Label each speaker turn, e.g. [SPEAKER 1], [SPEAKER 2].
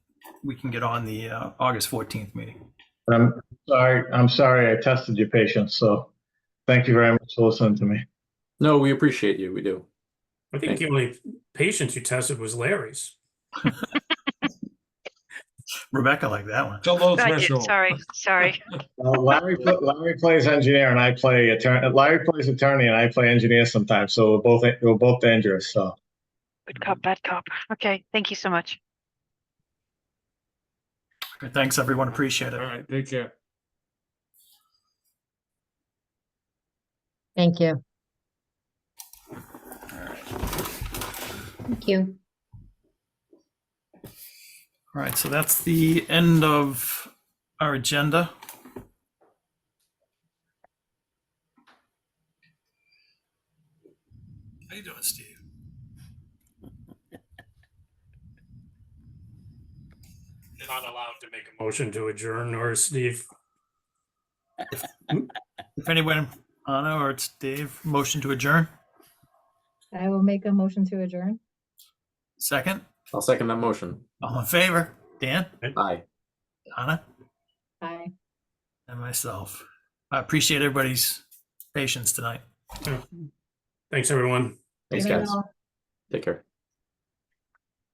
[SPEAKER 1] we can get on the uh, August 14th meeting.
[SPEAKER 2] I'm sorry, I'm sorry I tested your patience, so thank you very much for listening to me.
[SPEAKER 3] No, we appreciate you. We do.
[SPEAKER 4] I think the only patient you tested was Larry's.
[SPEAKER 1] Rebecca liked that one.
[SPEAKER 5] Still low
[SPEAKER 6] Thank you.
[SPEAKER 5] threshold.
[SPEAKER 6] Sorry, sorry.
[SPEAKER 2] Uh, Larry, pl- Larry plays engineer and I play attorney, Larry plays attorney and I play engineer sometimes, so we're both, we're both dangerous, so.
[SPEAKER 6] Good cop, bad cop. Okay, thank you so much.
[SPEAKER 1] Thanks, everyone. Appreciate
[SPEAKER 5] All
[SPEAKER 1] it.
[SPEAKER 5] right, take care.
[SPEAKER 7] Thank you.
[SPEAKER 8] Thank you.
[SPEAKER 1] All right, so that's the end of our agenda. How you doing, Steve?
[SPEAKER 4] Not allowed to make a motion to adjourn or Steve.
[SPEAKER 1] If anyone, Anna or it's Dave, motion to adjourn.
[SPEAKER 8] I will make a motion to adjourn.
[SPEAKER 1] Second,
[SPEAKER 3] I'll second that motion.
[SPEAKER 1] all in favor? Dan,
[SPEAKER 3] Aye.
[SPEAKER 1] Anna,
[SPEAKER 8] Bye.
[SPEAKER 1] and myself. I appreciate everybody's patience tonight.
[SPEAKER 4] Thanks, everyone.
[SPEAKER 3] Thanks,
[SPEAKER 8] Good night,
[SPEAKER 3] guys.
[SPEAKER 8] all.
[SPEAKER 3] Take care.